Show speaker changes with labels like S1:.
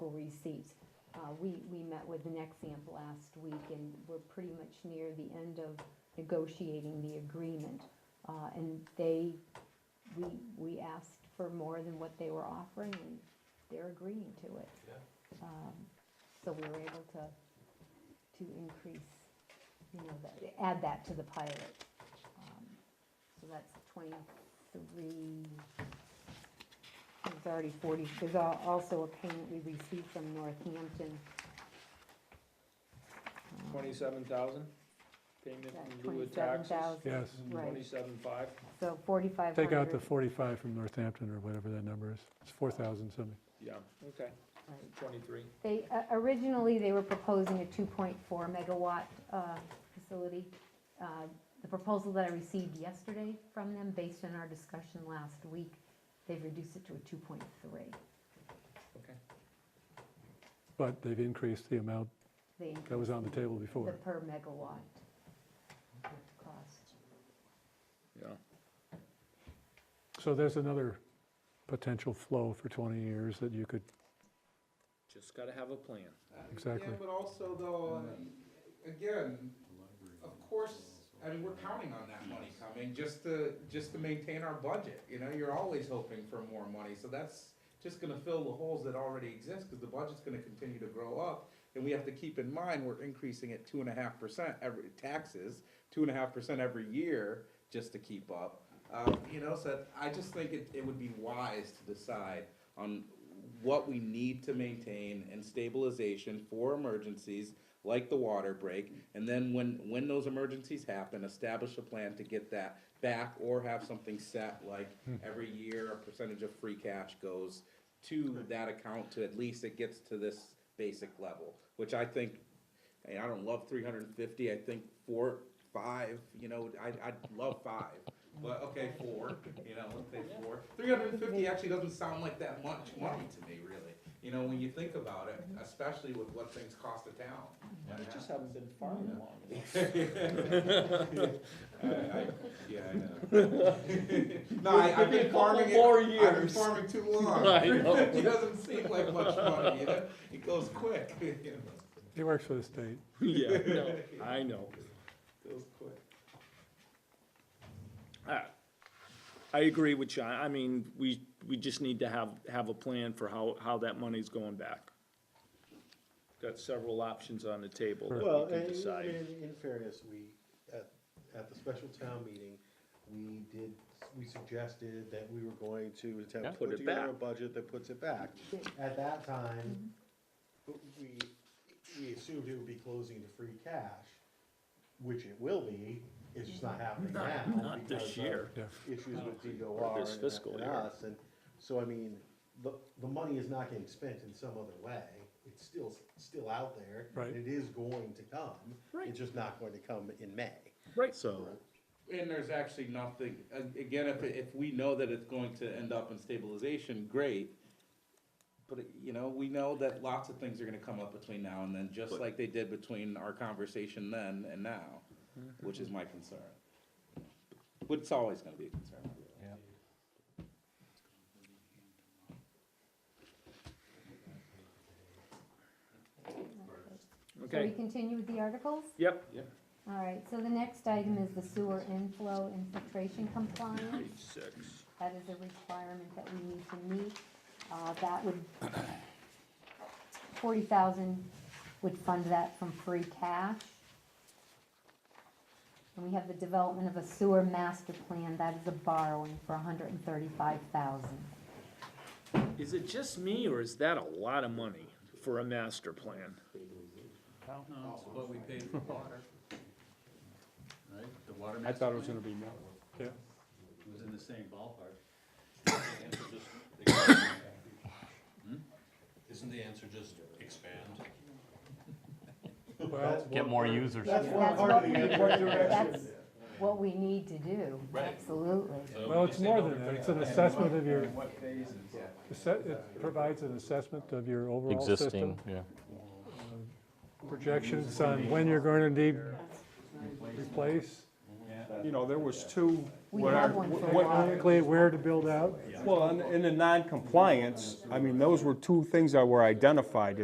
S1: receipts. Uh, We, we met with Nexamp last week and we're pretty much near the end of negotiating the agreement. Uh, And they, we, we asked for more than what they were offering and they're agreeing to it.
S2: Yeah.
S1: Um, So we were able to, to increase, you know, that- add that to the pilot. Um, So that's twenty-three, there's already forty, there's al- also a payment we received from Northampton. Um,
S3: Twenty-seven thousand, payment in lieu of
S1: Twenty-seven
S3: taxes.
S1: thousand,
S4: Yes,
S1: Right.
S3: Twenty-seven five,
S1: so forty-five hundred.
S4: take out the 45 from Northampton or whatever that number is. It's 4,000 something.
S3: yeah, okay, twenty-three.
S1: They, uh, originally, they were proposing a 2.4 megawatt uh, facility. Uh, The proposal that I received yesterday from them, based on our discussion last week, they've reduced it to a 2.3.
S4: But they've increased the amount
S1: They
S4: that was on the table
S1: The
S4: before.
S1: per megawatt cost.
S3: Yeah.
S4: So there's another potential flow for 20 years that you could,
S3: Just gotta have a plan.
S4: Exactly.
S5: Yeah, but also though, uh, again, of course, I mean, we're counting on that money coming just to, just to maintain our budget. You know, you're always hoping for more money, so that's just gonna fill the holes that already exist, cause the budget's gonna continue to grow up. And we have to keep in mind, we're increasing at two and a half percent every, taxes, two and a half percent every year just to keep up. Um, you know, so I just think it, it would be wise to decide on what we need to maintain and stabilization for emergencies like the water break. And then when, when those emergencies happen, establish a plan to get that back or have something set like every year, a percentage of free cash goes to that account to at least it gets to this basic level, which I think, hey, I don't love three hundred and fifty, I think four, five, you know, I, I'd love five. But, okay, four, you know, let's say four. Three hundred and fifty actually doesn't sound like that much money to me, really. You know, when you think about it, especially with what things cost a town.
S3: It just haven't been farming long enough.
S5: I- I- Yeah, I know. No, I, I've been farming it.
S3: more
S5: I've been
S3: years.
S5: farming too long.
S3: I know.
S5: It doesn't seem like much money, you know? It goes quick, you know?
S4: he works for the state.
S3: Yeah, no, I know.
S5: Goes quick.
S2: I I agree with John, I mean, we, we just need to have, have a plan for how, how that money's going back. Got several options on the table
S6: Well,
S2: that we
S6: and,
S2: can
S6: I
S2: decide.
S6: mean, in fairness, we, at, at the special town meeting, we did, we suggested that we were going to
S2: Yeah.
S6: attempt to
S2: Put it
S6: put together a
S2: back.
S6: budget that puts it back. At that time, we, we assumed it would be closing to free cash, which it will be, it's just not happening now.
S2: not this
S6: because of
S2: year.
S4: Yeah.
S6: Issues with
S2: Or
S6: DOR
S2: this
S6: and
S2: fiscal
S6: and
S2: year.
S6: us, and, so I mean, the, the money is not getting spent in some other way, it's still, still out there.
S4: Right.
S6: It is going to come.
S2: Right.
S6: It's just not going to come in May.
S2: Right.
S6: So,
S5: And there's actually nothing, a- again, if, if we know that it's going to end up in stabilization, great. But, you know, we know that lots of things are gonna come up between now and then, just like they did between our conversation then and now, which is my concern. But it's always gonna be a concern.
S1: So we
S2: Okay,
S1: continue with the articles?
S2: yep,
S1: All right, so the next item is the sewer inflow infiltration compliance.
S2: page six.
S1: That is a requirement that we need to meet. Uh, That would, forty thousand would fund that from free cash. And we have the development of a sewer master plan, that is a borrowing for hundred and thirty-five thousand.
S2: Is it just me, or is that a lot of money for a master plan?
S7: No,
S4: Oh.
S7: it's what we paid for water. Right, the water.
S4: I
S7: master
S4: thought it was
S7: plan
S4: gonna be more. Yeah,
S7: Was in the same ballpark. Hmm?
S8: Isn't the answer just expand?
S4: well,
S6: Get more
S8: users.
S6: that's one
S1: That's
S6: part
S1: what
S6: of
S1: we,
S6: the answer.
S1: that's what we need to do,
S8: Right.
S1: absolutely.
S4: well, it's more than that. It's an assessment of your,
S7: In what phases?
S4: asse- it provides an assessment of your overall system. Uh,
S9: existing, yeah.
S4: Projections on when you're going to need replace,
S7: Yeah.
S10: You know, there was two,
S1: We
S10: What
S1: had
S10: are-
S1: one for
S10: what-
S1: water.
S4: Basically, where to build out.
S10: well, in in the non-compliance, I mean, those were two things that were identified